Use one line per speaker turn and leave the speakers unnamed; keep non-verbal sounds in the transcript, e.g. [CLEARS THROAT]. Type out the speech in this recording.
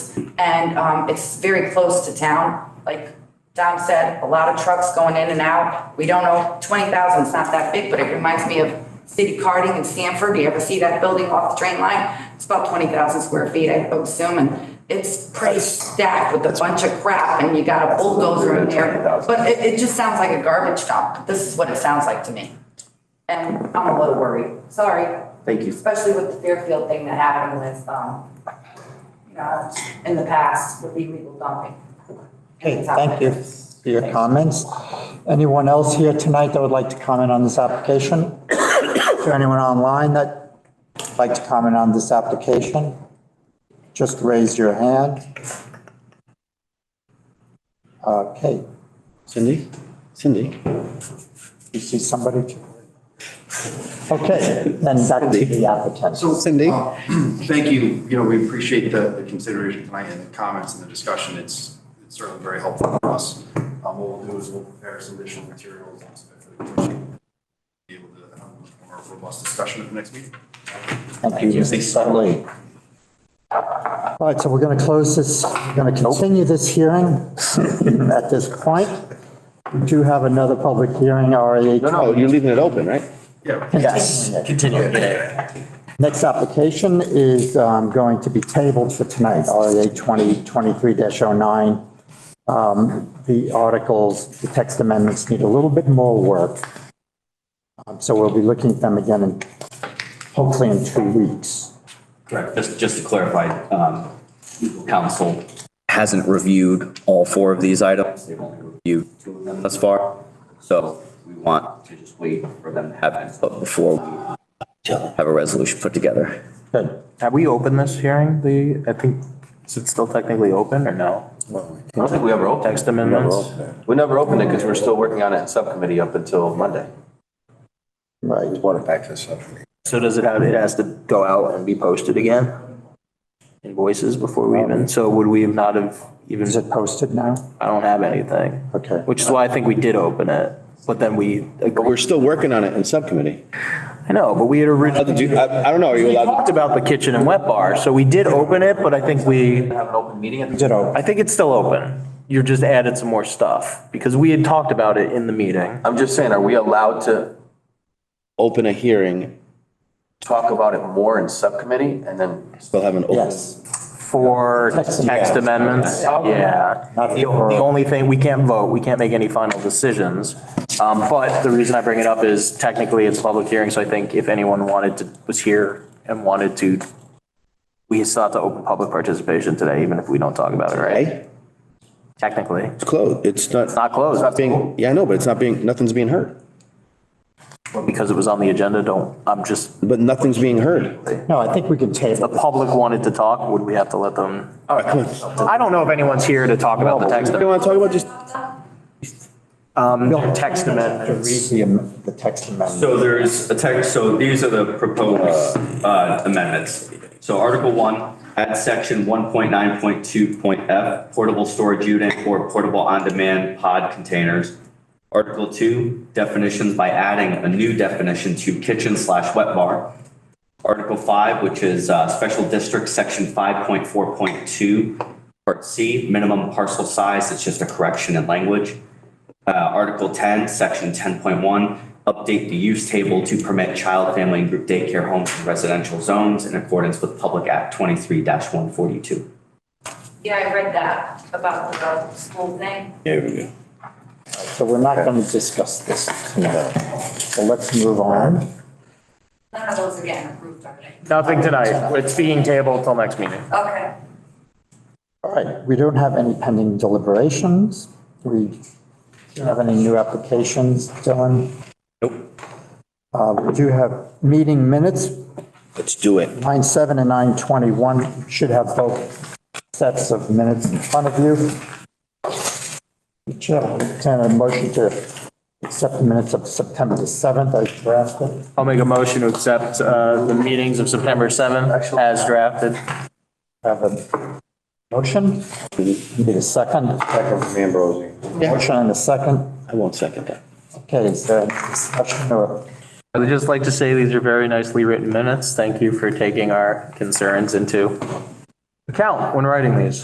And um, it's very close to town. Like Don said, a lot of trucks going in and out. We don't know, 20,000 is not that big, but it reminds me of City Carding in Sanford. You ever see that building off the train line? It's about 20,000 square feet, I would assume, and it's pretty stacked with a bunch of crap and you got a bulldozer in there. But it, it just sounds like a garbage dump. This is what it sounds like to me. And I'm a little worried, sorry,
Thank you.
especially with the Fairfield thing that happened with, um, you know, in the past with illegal dumping.
Okay, thank you for your comments. Anyone else here tonight that would like to comment on this application? Is there anyone online that would like to comment on this application? Just raise your hand. Okay,
Cindy? Cindy?
you see somebody? Okay, then back to the applicant.
Oh,
So
Cindy?
uh, [CLEARS THROAT] Thank you. You know, we appreciate the the consideration tonight and the comments and the discussion. It's it's certainly very helpful for us. Um, What we'll do is we'll prepare some additional materials and stuff for the commission. Be able to have a more robust discussion at the next meeting.
Thank you, Mr. Lee. All right, so we're going to close this, we're going to continue this hearing at this point. We do have another public hearing, RA.
No, no, you're leaving it open, right?
Yeah.
Yes. Continue Next application is um, going to be tabled for tonight, RA 2023-09. Um, The articles, the text amendments need a little bit more work. Um, So we'll be looking at them again in, hopefully in two weeks.
Correct. Just, just to clarify, um, legal counsel hasn't reviewed all four of these items. They've only reviewed two of them thus far. So we want to just wait for them to have input before we have a resolution put together.
Good.
Have we opened this hearing? The, I think, is it still technically open or no?
I don't think we ever opened.
Text amendments?
We never opened it because we're still working on it in subcommittee up until Monday.
Right.
So does it have, it has to go out and be posted again? Invoices before we even, so would we have not have even,
Is it posted now?
I don't have anything.
Okay.
Which is why I think we did open it, but then we,
But we're still working on it in subcommittee.
I know, but we had
Allowed to
originally
do- I, I don't know, are you allowed
talked about the kitchen and wet bar, so we did open it, but I think we,
to have an open meeting? at the-
Ditto.
I think it's still open. You're just added some more stuff because we had talked about it in the meeting.
I'm just saying, are we allowed to open a hearing? Talk about it more in subcommittee and then. Still have an open.
Yes.
For
Text
text amendments, yeah.
Not
The
for-
the only thing, we can't vote, we can't make any final decisions. Um, But the reason I bring it up is technically it's a public hearing, so I think if anyone wanted to, was here and wanted to, we still have to open public participation today, even if we don't talk about it, right?
Hey,
Technically,
it's closed. It's not,
it's not closed.
not being, yeah, I know, but it's not being, nothing's being heard.
But Because it was on the agenda, don't, I'm just,
But nothing's being heard.
No, I think we can
the
table.
public wanted to talk, would we have to let them?
All right, come on.
I don't know if anyone's here to talk about the text,
You want to talk about just
um, text amendments.
To read the am- the text amendment.
So there's a text, so these are the proposed uh, amendments. So Article 1, add section 1.9.2.f, portable storage unit or portable on-demand pod containers. Article 2, definitions by adding a new definition to kitchen slash wet bar. Article 5, which is uh, special district, section 5.4.2, part C, minimum parcel size, it's just a correction in language. Uh, Article 10, Section 10.1, update the use table to permit child, family, and group daycare homes in residential zones in accordance with Public Act 23-142.
Yeah, I read that about the uh, school thing.
So we're not going to discuss this tonight. So let's move on.
None of those again approved already.
Nothing tonight. It's being tabled till next meeting.
Okay.
All right, we don't have any pending deliberations. We don't have any new applications, Dylan. Nope. We do have meeting minutes,
Let's do it.
9:07 and 9:21. Should have both sets of minutes in front of you. Chair, I'll entertain a motion to accept the minutes of September the 7th as drafted.
I'll make a motion to accept uh, the meetings of September 7th as drafted.
Have a motion? Need a second? Second from Ambrosi. Motion and a second.
I won't second that.
Okay, is there any discussion or?
I would just like to say these are very nicely written minutes. Thank you for taking our concerns into account when writing these.